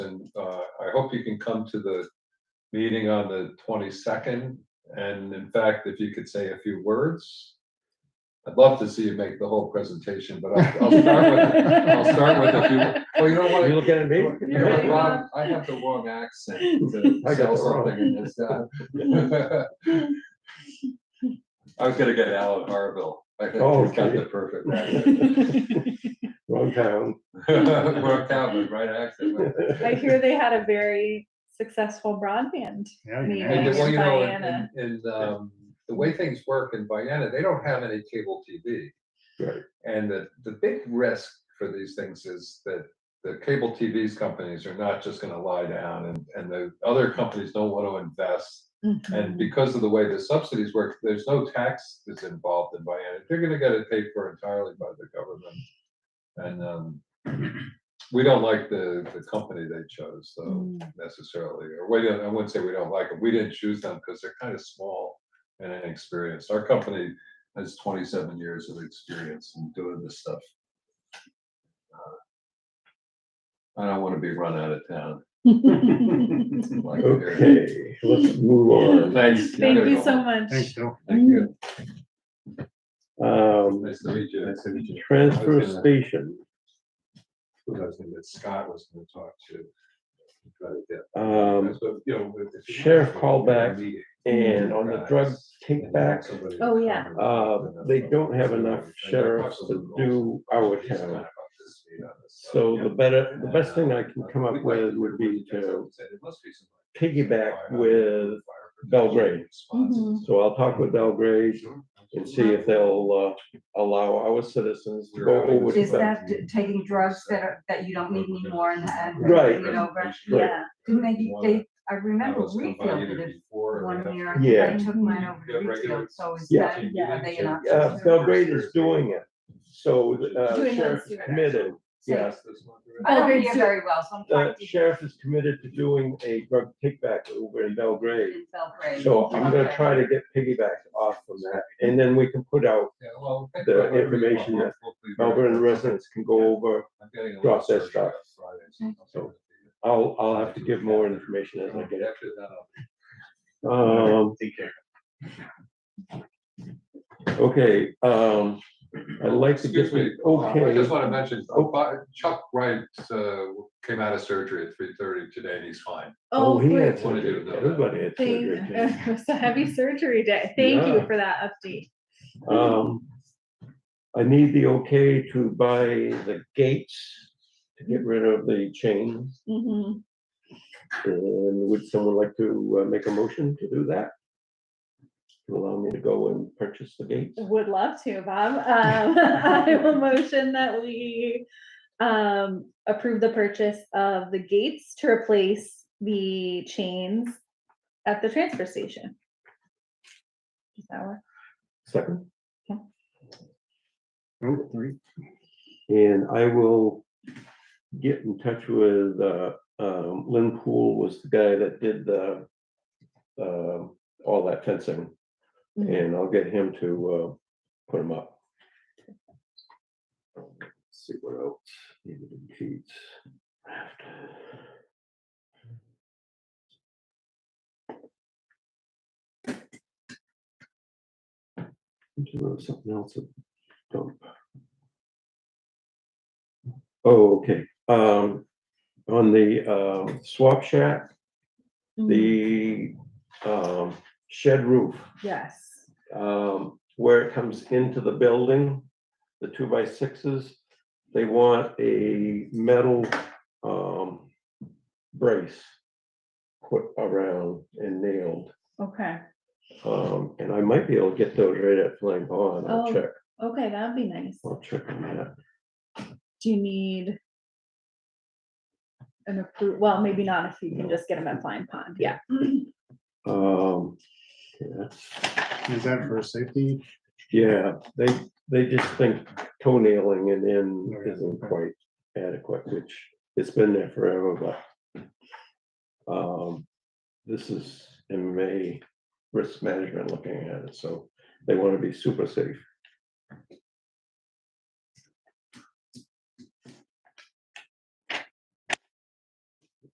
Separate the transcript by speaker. Speaker 1: uh, I hope you can come to the meeting on the twenty-second. And in fact, if you could say a few words, I'd love to see you make the whole presentation, but I'll, I'll start with, I'll start with a few, well, you know what?
Speaker 2: You looking at me?
Speaker 1: You know what, Ron? I have the wrong accent to
Speaker 2: I
Speaker 1: sell
Speaker 2: got the wrong-
Speaker 1: something in this uh, town. I was gonna get Alan Harville. I think
Speaker 2: Oh,
Speaker 1: he's got
Speaker 2: okay.
Speaker 1: the perfect accent.
Speaker 2: Wrong town.
Speaker 1: We're Calvin, right accent. right?
Speaker 3: I hear they had a very successful broadband.
Speaker 4: Yeah,
Speaker 3: Me.
Speaker 4: you
Speaker 1: And,
Speaker 4: know,
Speaker 3: Thanks,
Speaker 1: well, you know,
Speaker 3: Diana.
Speaker 1: and, and, um, the way things work in Vienna, they don't have any cable TV.
Speaker 2: Right.
Speaker 1: And the, the big risk for these things is that the cable TVs companies are not just gonna lie down and, and the other companies don't want to invest.
Speaker 3: Mm-hmm.
Speaker 1: And because of the way the subsidies work, there's no tax that's involved in Vienna. They're gonna get it paid for entirely by the government. And, um, we don't like the, the company they chose, though necessarily, or we don't, I wouldn't say we don't like them, we didn't choose them because they're kind of small and inexperienced. Our company has twenty-seven years of experience in doing this stuff. Uh, I don't want to be run out of town. like here.
Speaker 2: Okay, let's move on.
Speaker 1: Thanks.
Speaker 3: Thank you so much.
Speaker 4: Thanks, Joe.
Speaker 1: Thank you.
Speaker 2: Um,
Speaker 1: Nice to meet you. Mm-hmm. Nice to meet you.
Speaker 2: transfer station,
Speaker 1: Scott was gonna talk to. Try to get-
Speaker 2: um,
Speaker 1: that's what, you know, if- if you-
Speaker 2: Sheriff callback and on the drug take back,
Speaker 3: Oh, yeah.
Speaker 2: uh, they don't have enough sheriffs to do our town. So the better, the best thing I can come up with would be to piggyback with Belgrade.
Speaker 5: Mm-hmm.
Speaker 2: So I'll talk with Belgrade and see if they'll uh, allow our citizens to go over to
Speaker 5: Is
Speaker 2: them.
Speaker 5: that t- taking drugs that are, that you don't need anymore and, and.
Speaker 2: Right.
Speaker 5: You know, but
Speaker 3: Yeah.
Speaker 5: didn't they, they, I remember
Speaker 1: was combined
Speaker 5: Refield
Speaker 1: either
Speaker 5: did it
Speaker 1: before or
Speaker 5: one
Speaker 1: after.
Speaker 5: year,
Speaker 2: Yeah.
Speaker 5: I took mine over
Speaker 1: Yeah,
Speaker 5: to
Speaker 1: regular-
Speaker 5: Refield, so is
Speaker 2: Yeah.
Speaker 5: that,
Speaker 3: Yeah.
Speaker 5: are they an option?
Speaker 2: Uh,
Speaker 5: too?
Speaker 2: Belgrade is doing it, so
Speaker 3: Doing
Speaker 2: uh,
Speaker 3: it
Speaker 2: sheriff
Speaker 3: through-
Speaker 2: committed, yes.
Speaker 5: I don't
Speaker 3: Belgrade's
Speaker 5: hear
Speaker 3: doing-
Speaker 5: very well, so I'm
Speaker 2: The
Speaker 5: trying to.
Speaker 2: sheriff is committed to doing a drug kickback over in Belgrade.
Speaker 5: in Belgrade.
Speaker 2: So I'm gonna
Speaker 5: Okay.
Speaker 2: try to get piggyback off from that, and then we can put out,
Speaker 1: Yeah, well, think
Speaker 2: The
Speaker 1: about whatever you
Speaker 2: information
Speaker 1: want.
Speaker 2: that
Speaker 1: Hopefully we're-
Speaker 2: Melbourne residents can go over.
Speaker 1: I'm getting a
Speaker 2: drop
Speaker 1: little
Speaker 2: that
Speaker 1: surgery
Speaker 2: stuff.
Speaker 1: on Friday, so I'll
Speaker 2: So-
Speaker 1: send it to you.
Speaker 2: I'll, I'll have to give more information as I
Speaker 1: Okay,
Speaker 2: get
Speaker 1: after that, I'll-
Speaker 2: it. Um,
Speaker 4: Take care.
Speaker 2: okay, um, I'd like to
Speaker 1: Excuse
Speaker 2: get,
Speaker 1: me, I just
Speaker 2: okay,
Speaker 1: want to mention,
Speaker 2: Oh.
Speaker 1: Bob- Chuck Wright, uh, came out of surgery at three thirty today and he's fine.
Speaker 2: oh, he
Speaker 3: great.
Speaker 2: had surgery, everybody had
Speaker 3: Thank-
Speaker 2: surgery. Jane.
Speaker 3: It was a heavy surgery day. Thank you
Speaker 2: Yeah.
Speaker 3: for that update.
Speaker 2: Um, I need the okay to buy the gates to get rid of the chains.
Speaker 3: Mhm.
Speaker 2: And would someone like to uh, make a motion to do that? To allow me to go and purchase the gates?
Speaker 3: Would love to, Bob. Um, I will motion that we um, approve the purchase of the gates to replace the chains at the transfer station. Does that work?
Speaker 2: Second,
Speaker 4: Oh, three.
Speaker 2: and I will get in touch with, uh, um, Lynn Poole was the guy that did the, um all that fencing,
Speaker 3: Mhm.
Speaker 2: and I'll get him to, uh, put them up. Let's See what else needed in sheets. There was Something else. that don't- Oh, okay, um, on the, uh, swap shack,
Speaker 3: Hmm. Mm,
Speaker 2: the, um, shed roof
Speaker 3: Yes.
Speaker 2: um, where it comes into the building, the two by sixes, they want a metal, um, brace put around and nailed.
Speaker 3: Okay,
Speaker 2: Um, and I might be able to get those right at Flame Pond. I'll
Speaker 3: Oh.
Speaker 2: check,
Speaker 3: okay, that'd be nice.
Speaker 2: I'll check on that.
Speaker 3: Do you need an approve, well, maybe not if you can just get them at Flying Pond, yeah.
Speaker 2: Um, yeah,
Speaker 4: Is that for safety?
Speaker 2: yeah, they, they just think toenailing and in isn't quite adequate, which it's been there forever, but um, this is MMA risk management looking at it, so they want to be super safe.